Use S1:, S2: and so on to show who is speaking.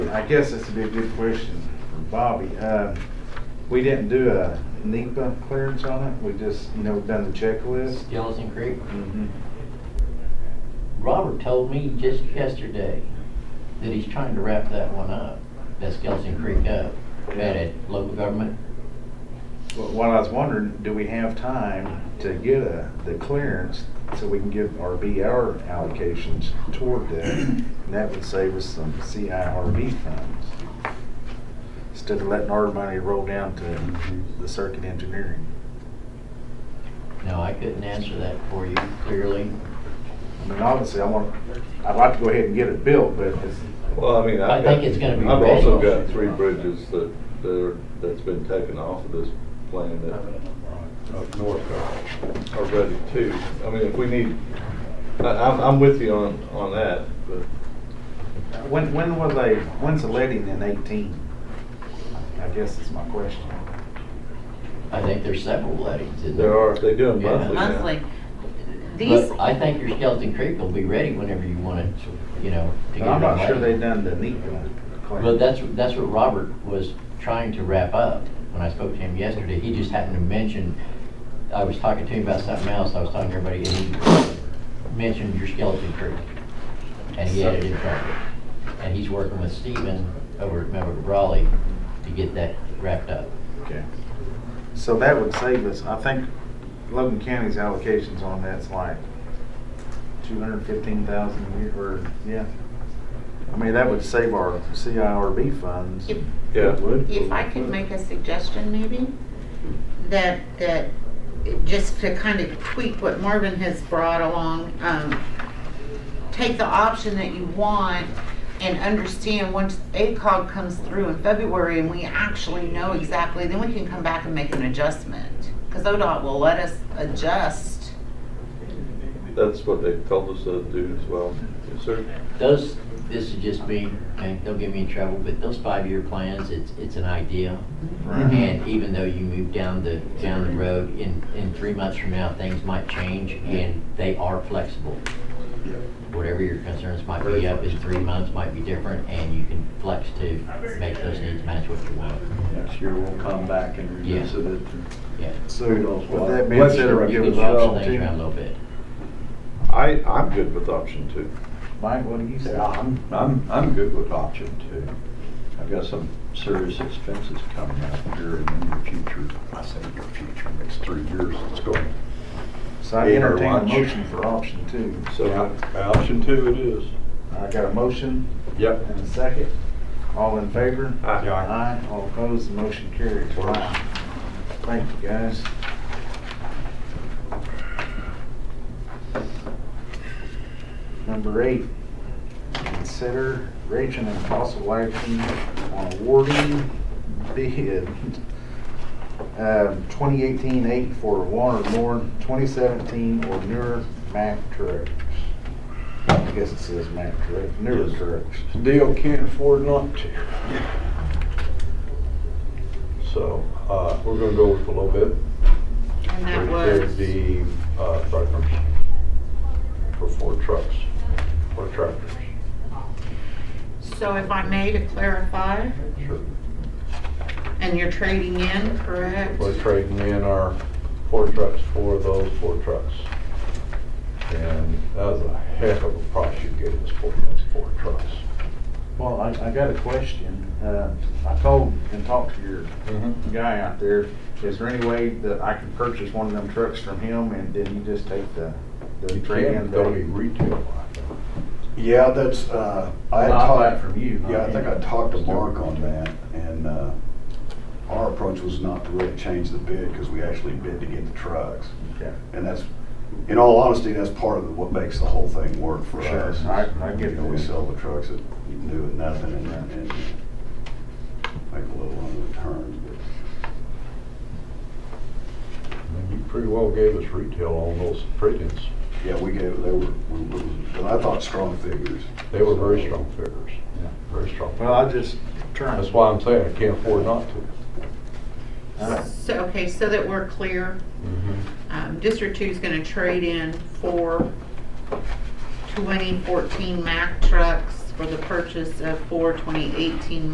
S1: I guess this would be a good question for Bobby. Uh, We didn't do a NEPA clearance on it, we just, you know, done the checklist.
S2: Skeleton Creek.
S1: Mhm.
S2: Robert told me just yesterday that he's trying to wrap that one up, that Skeleton Creek up, at a local government.
S1: But What I was wondering, do we have time to get a, the clearance so we can give our BR allocations toward that? And that would save us some CIRB funds. Instead of letting our money roll down to the circuit engineering.
S2: No, I couldn't answer that for you clearly.
S1: I mean, obviously, I want, I'd like to go ahead and get it built, but it's,
S3: Well, I mean,
S2: I
S3: I've got.
S2: think it's gonna be
S3: I've also
S2: ready.
S3: got three bridges that, that are, that's been taken off of this plan that up north are, are ready too. I mean, if we need, I, I'm, I'm with you on, on that, but
S1: when, when will they, when's the letting in eighteen? I guess is my question.
S2: I think there's several lettings in there.
S3: there are, they do them
S2: Yeah.
S3: monthly now.
S4: monthly. Uh, These,
S2: But I think your Skeleton Creek will be ready whenever you want it, to, you know,
S1: But
S2: to get it.
S1: I'm not sure
S2: ready.
S1: they done the NEPA clearance.
S2: Well, that's, that's what Robert was trying to wrap up when I spoke to him yesterday. He just happened to mention, I was talking to him about something else, I was talking to everybody, and he mentioned your skeleton crew. And he had it in front of him. And he's working with Steven over at Member Raleigh to get that wrapped up.
S1: Okay. So that would save us, I think Logan County's allocations on that's like two hundred fifteen thousand a year, or, yeah. I mean, that would save our CIRB funds.
S4: if,
S3: Yeah.
S4: if I could make a suggestion maybe, that, that, just to kind of tweak what Marvin has brought along, um, take the option that you want and understand once ACOG comes through in February and we actually know exactly, then we can come back and make an adjustment. Because ODOT will let us adjust.
S3: That's what they told us to do as well. Yes, sir.
S2: Those, this is just me, and don't get me in trouble, but those five-year plans, it's, it's an idea. And even though you move down the, down the road, in, in three months from now, things might change and they are flexible. Whatever your concerns might be up in three months might be different and you can flex to make those needs match what you want.
S5: Next year, we'll come back and revisit it.
S2: Yeah.
S1: So
S5: Kudos,
S1: with that
S5: Bob.
S1: being
S5: Let's
S1: said,
S5: hear
S1: it
S5: it.
S2: You
S1: give
S2: can
S1: us
S2: shuffle
S1: option
S2: things around
S1: two.
S2: a little bit.
S3: I, I'm good with option two.
S1: Mike, what do you say?
S5: Yeah, I'm, I'm, I'm good with option two. I've got some serious expenses coming up here in the near future. I say near future, next three years, it's going.
S1: So I
S5: Eat our
S1: entertain a
S5: lunch.
S1: motion for option two.
S3: So,
S5: option two it is.
S1: I got a motion
S5: Yep.
S1: and a second. All in favor?
S3: Aye.
S1: Aye, all opposed, the motion carries. Wow. Thank you, guys. Number eight, consider Rachel and possible action on awarding bid um, 2018-8 for one or more 2017 or newer Mack trucks. I guess it says Mack truck, newer
S5: Yes.
S1: trucks.
S5: Deal can't afford not to. So, uh,
S3: we're gonna go with a little bit.
S4: And that
S5: There'd
S4: was,
S5: be, uh, programs for four trucks, four tractors.
S4: so if I may to clarify,
S5: Sure.
S4: and you're trading in, correct?
S5: We're trading in our four trucks for those four trucks. And that was a heck of a price you gave us for those four trucks.
S1: Well, I, I got a question. Uh, I called and talked to your guy out there. Is there any way that I can purchase one of them trucks from him and then you just take the, the
S5: You
S1: trade in
S5: can't go to
S1: value?
S5: retail.
S6: Yeah, that's, uh, I had
S1: Well, I'll buy it
S6: talked,
S1: from you.
S6: yeah, I think I talked to Mark on that, and, uh, our approach was not to really change the bid, because we actually bid to get the trucks.
S1: Okay.
S6: And that's, in all honesty, that's part of what makes the whole thing work for
S1: Sure,
S6: us.
S1: I- I get
S6: You know, we
S1: that.
S6: sell the trucks at new and nothing, and, and make a little on the returns, but
S5: And You pretty well gave us retail on those trade-ins.
S6: yeah, we gave, they were, we- we- and I thought strong figures.
S5: They were very strong figures,
S1: Yeah.
S5: very strong.
S1: Well, I just trying.
S5: That's why I'm saying I can't afford not to.
S1: Uh,
S4: So, okay, so that we're clear,
S5: Mm-hmm.
S4: um, District Two's gonna trade in four 2014 Mack trucks for the purchase of four 2018